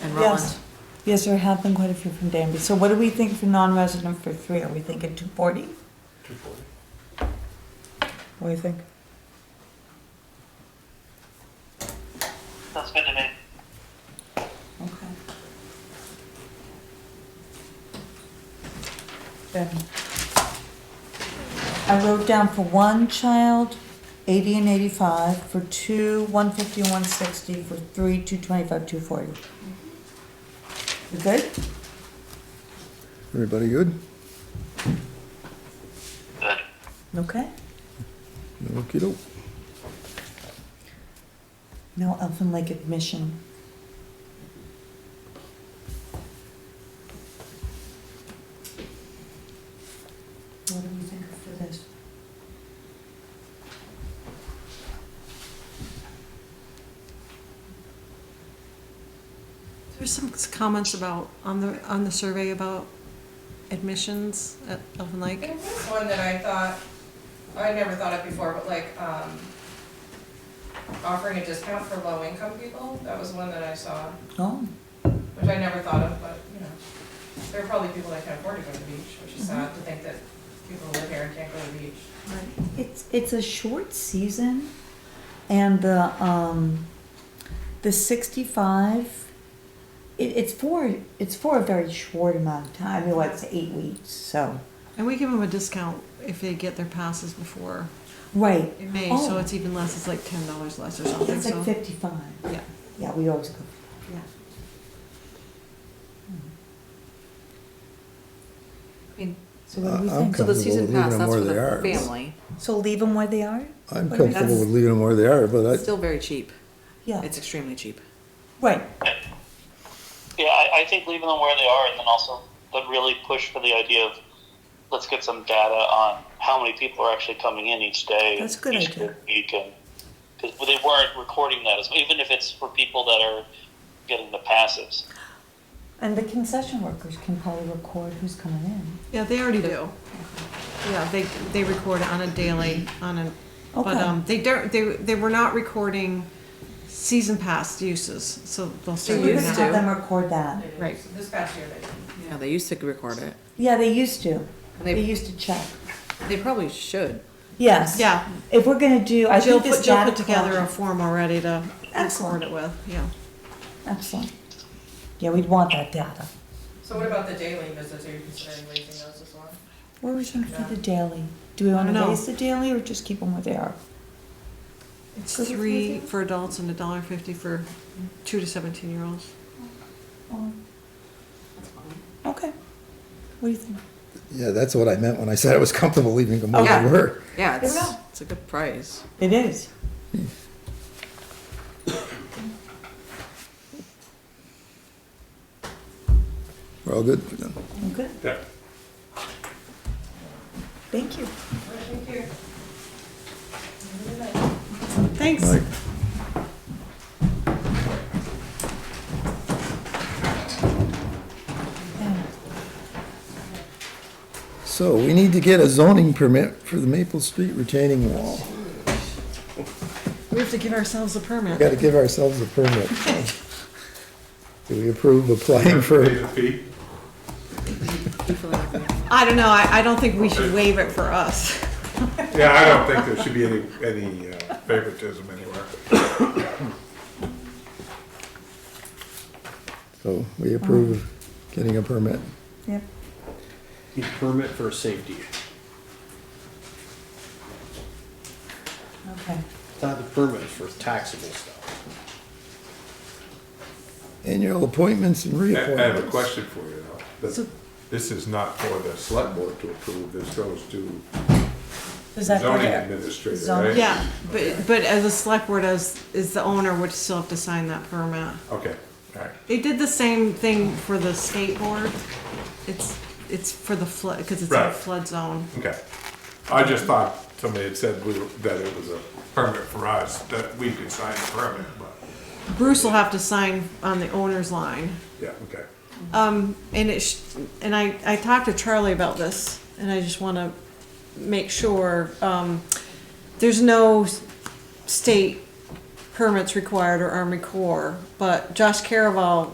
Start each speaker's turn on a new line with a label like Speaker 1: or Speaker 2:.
Speaker 1: and Roland.
Speaker 2: Yes, yes, there have been quite a few from Danby. So what do we think for non-resident for three? Are we thinking two forty?
Speaker 3: Two forty.
Speaker 2: What do you think?
Speaker 4: Sounds good to me.
Speaker 2: Okay. Then, I wrote down for one child, eighty and eighty-five, for two, one fifty and one sixty, for three, two twenty-five, two forty. You good?
Speaker 5: Everybody good?
Speaker 4: Good.
Speaker 2: Okay.
Speaker 5: Okey-doke.
Speaker 2: No Elfin Lake admission. What do you think for this?
Speaker 1: There's some comments about, on the, on the survey about admissions at Elfin Lake.
Speaker 6: There was
Speaker 2: Mm-hmm.
Speaker 6: one that I thought, I never thought of before, but like, um, offering a discount for low-income people, that was one that I saw,
Speaker 2: Oh,
Speaker 6: which I never thought of, but, you know. There are probably people that can afford to go to the beach, which is sad to think that people who live here and can't go to the beach.
Speaker 2: it's, it's a short season and the, um, the sixty-five, it, it's for, it's for a very short amount of time, I mean, like, it's eight weeks, so.
Speaker 1: And we give them a discount if they get their passes before
Speaker 2: Right,
Speaker 1: May,
Speaker 2: Oh.
Speaker 1: so it's even less, it's like ten dollars less or something,
Speaker 2: it's like
Speaker 1: so.
Speaker 2: fifty-five.
Speaker 1: Yeah.
Speaker 2: Yeah, we always go. Hmm.
Speaker 1: Yeah.
Speaker 2: So what do we
Speaker 5: I- I'm
Speaker 2: think?
Speaker 5: So the season Comfortable pass, leaving them that's where for the they are.
Speaker 7: family.
Speaker 2: So leave them where they are?
Speaker 5: I'm
Speaker 2: But
Speaker 5: comfortable
Speaker 7: that's-
Speaker 5: with leaving them where they are, but I,
Speaker 7: Still very cheap.
Speaker 2: Yeah,
Speaker 7: It's extremely cheap.
Speaker 2: right.
Speaker 4: Yeah, I, I think leaving them where they are and then also but really push for the idea of let's get some data on how many people are actually coming in each day.
Speaker 2: That's a good
Speaker 4: each
Speaker 2: idea.
Speaker 4: Week and, cause they weren't recording that as, even if it's for people that are getting the passes.
Speaker 2: And the concession workers can probably record who's coming in.
Speaker 1: Yeah, they already do. Yeah, they, they record on a daily, on a, but,
Speaker 2: Okay.
Speaker 1: um, they don't, they, they were not recording season pass uses, so they'll
Speaker 2: So
Speaker 1: start
Speaker 2: you
Speaker 1: doing
Speaker 2: can
Speaker 7: used
Speaker 1: that.
Speaker 2: have them record that.
Speaker 1: Right.
Speaker 6: This past year, they did.
Speaker 7: Yeah, they used to record it.
Speaker 2: Yeah, they used to.
Speaker 7: And
Speaker 2: They
Speaker 7: they,
Speaker 2: used to check.
Speaker 7: they probably should.
Speaker 2: Yes.
Speaker 1: Yeah.
Speaker 2: If we're gonna do, I
Speaker 1: Jill
Speaker 2: think this
Speaker 1: put, Jill
Speaker 2: data
Speaker 1: put together a
Speaker 2: collection-
Speaker 1: form already to record
Speaker 2: Excellent.
Speaker 1: it with, yeah.
Speaker 2: Excellent. Yeah, we'd want that data.
Speaker 6: So what about the daily visits, are you considering raising those as well?
Speaker 2: What are we thinking for the daily? Do we wanna
Speaker 1: No.
Speaker 2: raise the daily or just keep them where they are?
Speaker 1: It's
Speaker 2: Is it
Speaker 1: three
Speaker 2: freezing?
Speaker 1: for adults and a dollar fifty for two to seventeen year olds.
Speaker 2: Okay. What do you think?
Speaker 5: yeah, that's what I meant when I said I was comfortable leaving them where
Speaker 7: Yeah.
Speaker 5: they were.
Speaker 7: Yeah, it's,
Speaker 2: Yeah.
Speaker 7: it's a good price.
Speaker 2: It is.
Speaker 5: We're all good. then.
Speaker 2: Good.
Speaker 3: Yeah.
Speaker 2: Thank you.
Speaker 6: Thank you.
Speaker 1: Thanks.
Speaker 5: Right.
Speaker 2: Yeah.
Speaker 5: So we need to get a zoning permit for the Maple Street retaining wall.
Speaker 1: We have to give ourselves a
Speaker 5: We
Speaker 1: permit.
Speaker 5: Gotta give ourselves a permit. Do we approve applying
Speaker 3: Pay
Speaker 5: for,
Speaker 3: the fee.
Speaker 1: I don't know, I, I don't think we should waive it for us.
Speaker 3: Yeah, I don't think there should be any, any uh, favoritism anywhere.
Speaker 5: so we approve of getting a permit?
Speaker 2: Yep.
Speaker 8: Need a permit for safety.
Speaker 2: Okay.
Speaker 8: It's Not the permit it's for taxable stuff.
Speaker 5: Annual appointments and
Speaker 3: I I have a
Speaker 5: reappointments.
Speaker 3: question for you though. This-
Speaker 1: So-
Speaker 3: This is not for the select board to approve, this goes to
Speaker 2: Does that go
Speaker 3: zoning
Speaker 2: there?
Speaker 3: administrator,
Speaker 2: Zoning.
Speaker 3: right?
Speaker 1: Yeah, but, but as a select board, as, is the owner would still have to sign that permit.
Speaker 3: Okay, all right.
Speaker 1: They did the same thing for the state board. It's, it's for the flood, because it's in a
Speaker 3: Right.
Speaker 1: flood zone.
Speaker 3: Okay. I just thought somebody had said we were- that it was a permit for us, that we could sign the permit, but,
Speaker 1: Bruce will have to sign on the owner's line.
Speaker 3: yeah, okay.
Speaker 1: Um, and it, sh- and I, I talked to Charlie about this, and I just want to make sure, um, there's no s- state permits required or Army Corps, but Josh Caraval